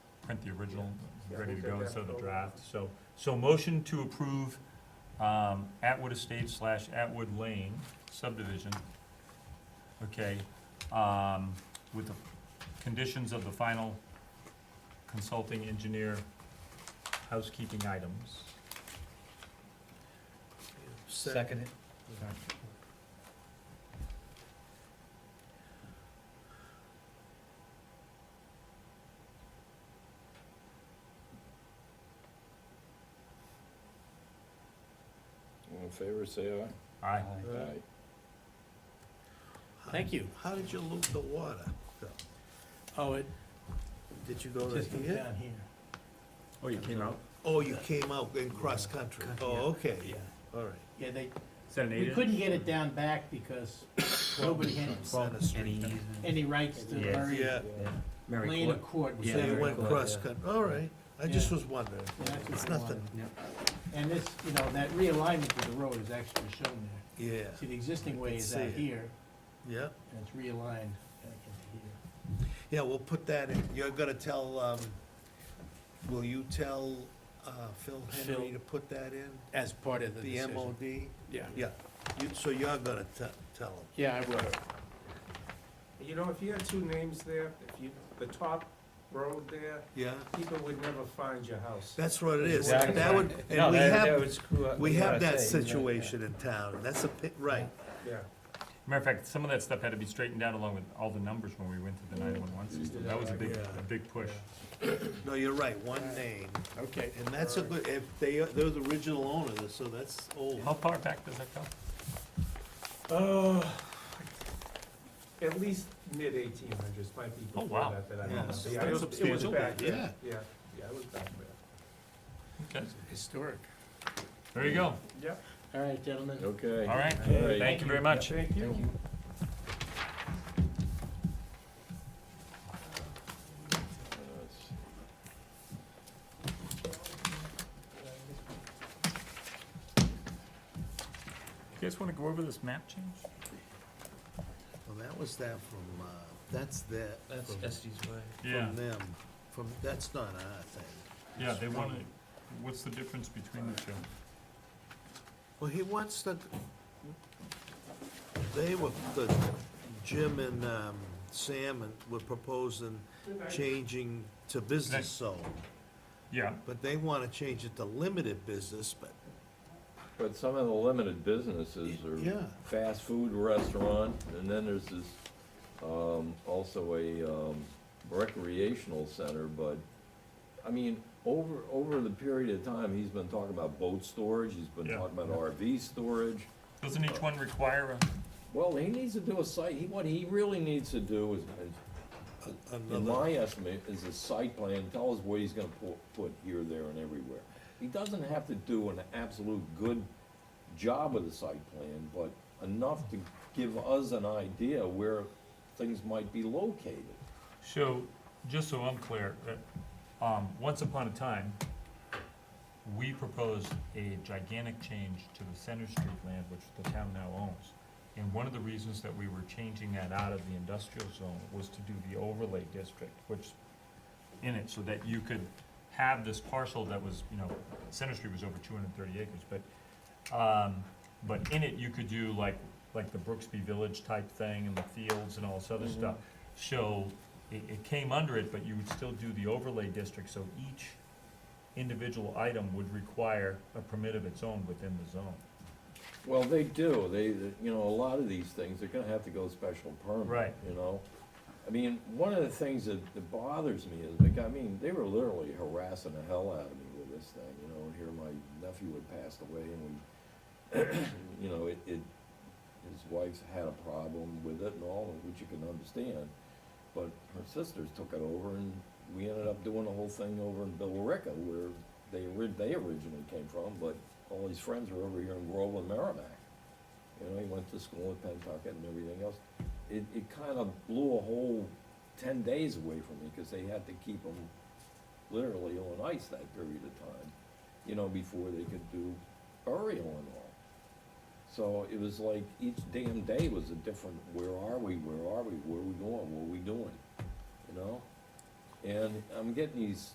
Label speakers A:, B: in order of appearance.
A: print the original,
B: Yeah.
A: ready to
B: Yeah,
A: go
B: we'll
A: instead of the
B: take that.
A: draft, so, so motion to approve, um, Atwood Estates slash Atwood Lane subdivision. Okay, um, with the conditions of the final consulting engineer housekeeping items.
C: Second it.
D: All in favor, say aye.
A: Aye.
D: Aye.
C: Thank you.
B: How did you loop the water?
C: Oh, it
B: Did you go to
C: just came
B: here?
C: down here.
A: Oh, you came out?
B: Oh, you came out in cross-country.
C: Cut here.
B: Oh, okay,
C: Yeah,
B: all right.
C: yeah, they,
A: Is that an
C: we
A: eight
C: couldn't get it down back because nobody had
B: Center Street.
C: any rights to
E: Yeah.
C: Murray
B: Yeah,
C: Lane or Court.
B: so you
E: very
B: went
E: close,
B: cross-country, all right. I just
C: Yeah.
B: was wondering.
C: Yeah, that's what
B: It's
C: I
B: nothing,
C: And this, you know, that realignment of the road is actually shown there.
B: yeah,
C: See, the existing way is
B: see
C: out
B: it.
C: here,
B: yeah.
C: and it's realigned back into here.
B: Yeah, we'll put that in. You're gonna tell, um, will you tell, uh, Phil Henry
C: Phil.
B: to put that in?
C: As part of the
B: The
C: decision.
B: MOD?
C: Yeah.
B: Yeah, you, so you're gonna te- tell him.
C: Yeah, I will.
F: You know, if you had two names there, if you, the top road there,
B: Yeah,
F: people would never find your house.
B: that's what it is.
E: Exactly.
B: That would,
E: No,
B: and we
E: that- that
B: have,
E: would screw up
B: we
E: the
B: have that
E: RSA, you know,
B: situation in town. That's a, pi- right.
F: Yeah,
A: Matter of fact, some of that stuff had to be straightened out along with all the numbers when we went to the nine-one-one system, that was a big,
B: Yeah.
A: a big push.
B: No, you're right, one name.
C: Okay.
B: And that's a good, if they, they're the original owner, so that's old.
A: How far back does that go?
F: oh, at least mid eighteen hundreds, might be
A: Oh,
F: before
A: wow.
F: that, that I
B: Yeah.
F: don't know.
B: That's
F: Yeah, it was- it was
A: substantial.
F: back there.
B: Yeah.
F: Yeah, yeah, it was back there.
A: Okay,
C: Historic.
A: there you go,
F: Yeah.
C: All right, gentlemen.
D: Okay.
A: all right,
D: All right.
A: thank you very much.
F: Thank you.
D: Uh,
A: You guys wanna go over this map change?
B: Well, that was that from, uh, that's that,
E: That's
B: from
E: Estes Way.
A: Yeah,
B: from them, from, that's not our thing.
A: yeah, they wanna, what's the difference between the two?
B: Well, he wants the, they were, the, Jim and, um, Sam and were proposing changing to business zone,
A: Yeah,
B: but they wanna change it to limited business, but,
D: But some of the limited businesses
B: Yeah.
D: are fast food restaurant, and then there's this, um, also a, um, recreational center, but, I mean, over, over the period of time, he's been talking about boat storage, he's been
A: Yeah.
D: talking about RV storage.
A: doesn't each one require a,
D: Well, he needs to do a site, he, what he really needs to do is, is In
B: another,
D: my estimate, is a site plan, tell us what he's gonna put, put here, there, and everywhere. He doesn't have to do an absolute good job of the site plan, but enough to give us an idea where things might be located.
A: so, just so I'm clear, uh, um, once upon a time, we proposed a gigantic change to the Center Street land, which the town now owns. And one of the reasons that we were changing that out of the industrial zone was to do the overlay district, which, in it, so that you could have this parcel that was, you know, Center Street was over two hundred and thirty acres, but, um, but in it, you could do like, like the Brooksby Village type thing and the fields and all this other stuff. So, it, it came under it, but you would still do the overlay district, so each individual item would require a permit of its own within the zone.
D: Well, they do, they, you know, a lot of these things, they're gonna have to go special permit.
A: Right.
D: You know, I mean, one of the things that, that bothers me is, like, I mean, they were literally harassing the hell out of me with this thing, you know, and here my nephew had passed away and we, you know, it, it, his wife's had a problem with it and all, which you can understand, but her sisters took it over and we ended up doing the whole thing over in Billerica where they, ori- they originally came from, but all his friends were over here in Groveland, Merrimack. You know, he went to school at Pentucket and everything else. It, it kind of blew a whole ten days away from me, because they had to keep him literally on ice that period of time, you know, before they could do burial and all. So it was like each damn day was a different, where are we, where are we, where are we going, what are we doing, you know? And I'm getting these